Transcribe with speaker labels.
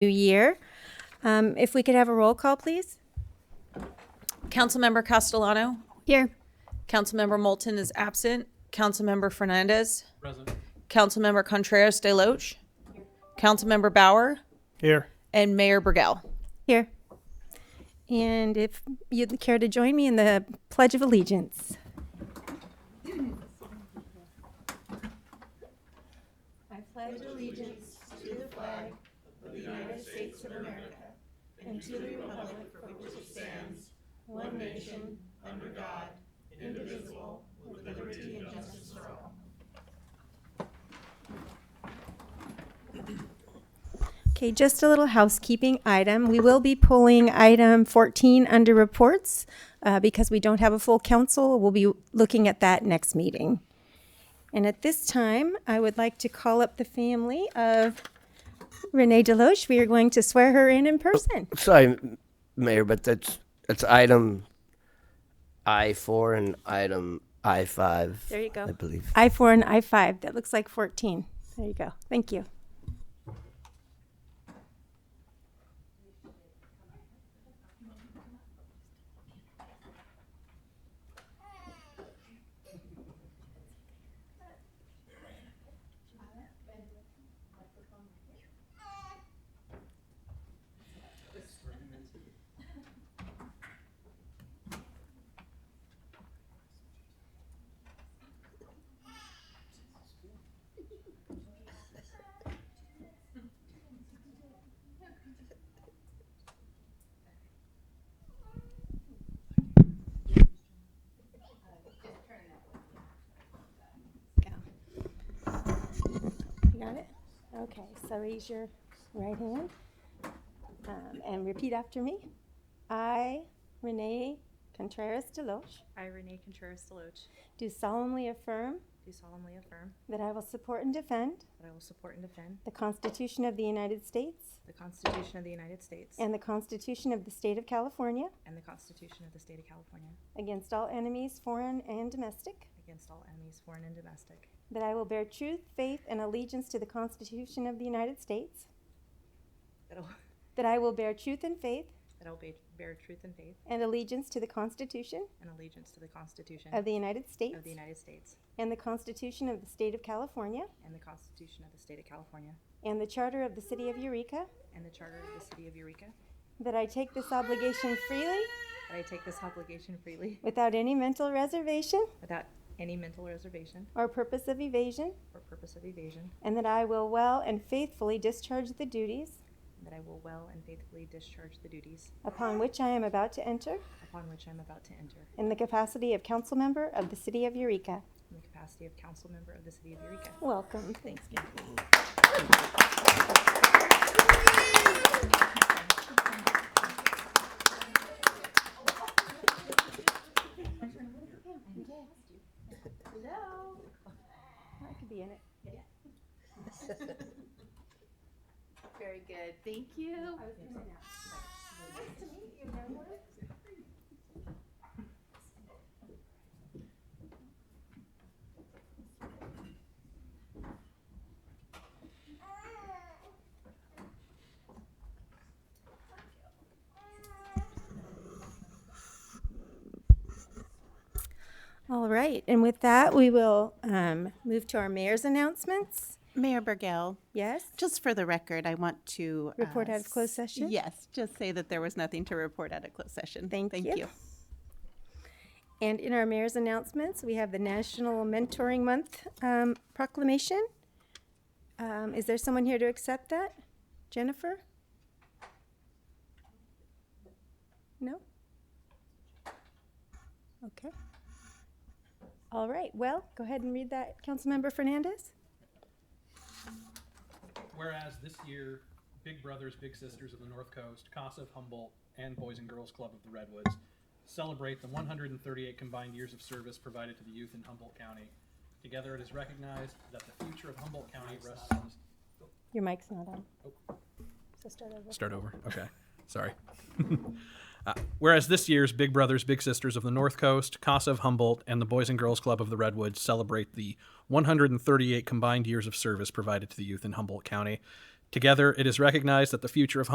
Speaker 1: year. Um, If we could have a roll call, please?
Speaker 2: Councilmember Castellano,
Speaker 3: Here.
Speaker 2: Councilmember Moulton is absent, Councilmember Fernandez. Present. Councilmember Contreras De Loche. Councilmember Bauer
Speaker 4: Here.
Speaker 2: and Mayor Burgell.
Speaker 1: Here. And if you'd care to join me in the Pledge of Allegiance. Okay, just a little housekeeping item. We will be pulling item 14 under reports uh, because we don't have a full council. We'll be looking at that next meeting. And at this time, I would like to call up the family of Renee Deloche. We are going to swear her in in person.
Speaker 5: Sorry, Mayor, but that's, that's item I four and item I five. There
Speaker 1: you go.
Speaker 5: I believe.
Speaker 1: I-4 and I-5, that looks like 14. There you go. Thank you. You got it? Okay, so raise your right hand um, and repeat after me. I, Renee Contreras Deloche,
Speaker 6: I, Renee Contreras Deloche,
Speaker 1: do solemnly affirm
Speaker 6: do solemnly affirm
Speaker 1: that I will support and defend
Speaker 6: that I will support and defend
Speaker 1: the Constitution of the United States
Speaker 6: the Constitution of the United States
Speaker 1: and the Constitution of the State of California
Speaker 6: and the Constitution of the State of California
Speaker 1: against all enemies, foreign and domestic,
Speaker 6: against all enemies, foreign and domestic,
Speaker 1: that I will bear truth, faith, and allegiance to the Constitution of the United States,
Speaker 6: that I will,
Speaker 1: that I will bear truth and faith
Speaker 6: that I will be- bear truth and faith
Speaker 1: and allegiance to the Constitution
Speaker 6: and allegiance to the Constitution
Speaker 1: of the United States
Speaker 6: of the United States
Speaker 1: and the Constitution of the State of California
Speaker 6: and the Constitution of the State of California
Speaker 1: And the Charter of the City of Eureka.
Speaker 6: and the Charter of the City of Eureka,
Speaker 1: That I take this obligation freely,
Speaker 6: that I take this obligation freely
Speaker 1: without any mental reservation
Speaker 6: without any mental reservation
Speaker 1: or purpose of evasion.
Speaker 6: or purpose of evasion,
Speaker 1: And that I will well and faithfully discharge the duties
Speaker 6: and that I will well and faithfully discharge the duties
Speaker 1: upon which I am about to enter
Speaker 6: upon which I am about to enter
Speaker 1: in the capacity of council member of the City of Eureka.
Speaker 6: in the capacity of council member of the City of Eureka.
Speaker 1: Welcome. Thanks. Hello. I could be in it.
Speaker 7: Very good, thank you.
Speaker 1: All right, and with that, we will um, move to our mayor's announcements.
Speaker 8: Mayor Burgell,
Speaker 1: Yes?
Speaker 8: just for the record, I want to. uh,
Speaker 1: Report out of closed session?
Speaker 8: Yes, just say that there was nothing to report out of closed session.
Speaker 1: Thank you. And in our mayor's announcements, we have the National Mentoring Month um, proclamation. Um, Is there someone here to accept that? Jennifer? No? Okay. All right, well, go ahead and read that, Councilmember Fernandez.
Speaker 9: Whereas this year, Big Brothers Big Sisters of the North Coast, Casa of Humboldt, and Boys and Girls Club of the Redwoods celebrate the 138 combined years of service provided to the youth in Humboldt County. Together, it is recognized that the future of Humboldt County rests on this
Speaker 1: Your mic's not on. So start over.
Speaker 9: Start over. Okay. Sorry. Uh, whereas this year's Big Brothers Big Sisters of the North Coast, Casa of Humboldt, and the Boys and Girls Club of the Redwoods celebrate the 138 combined years of service provided to the youth in Humboldt County. Together, it is recognized that the future of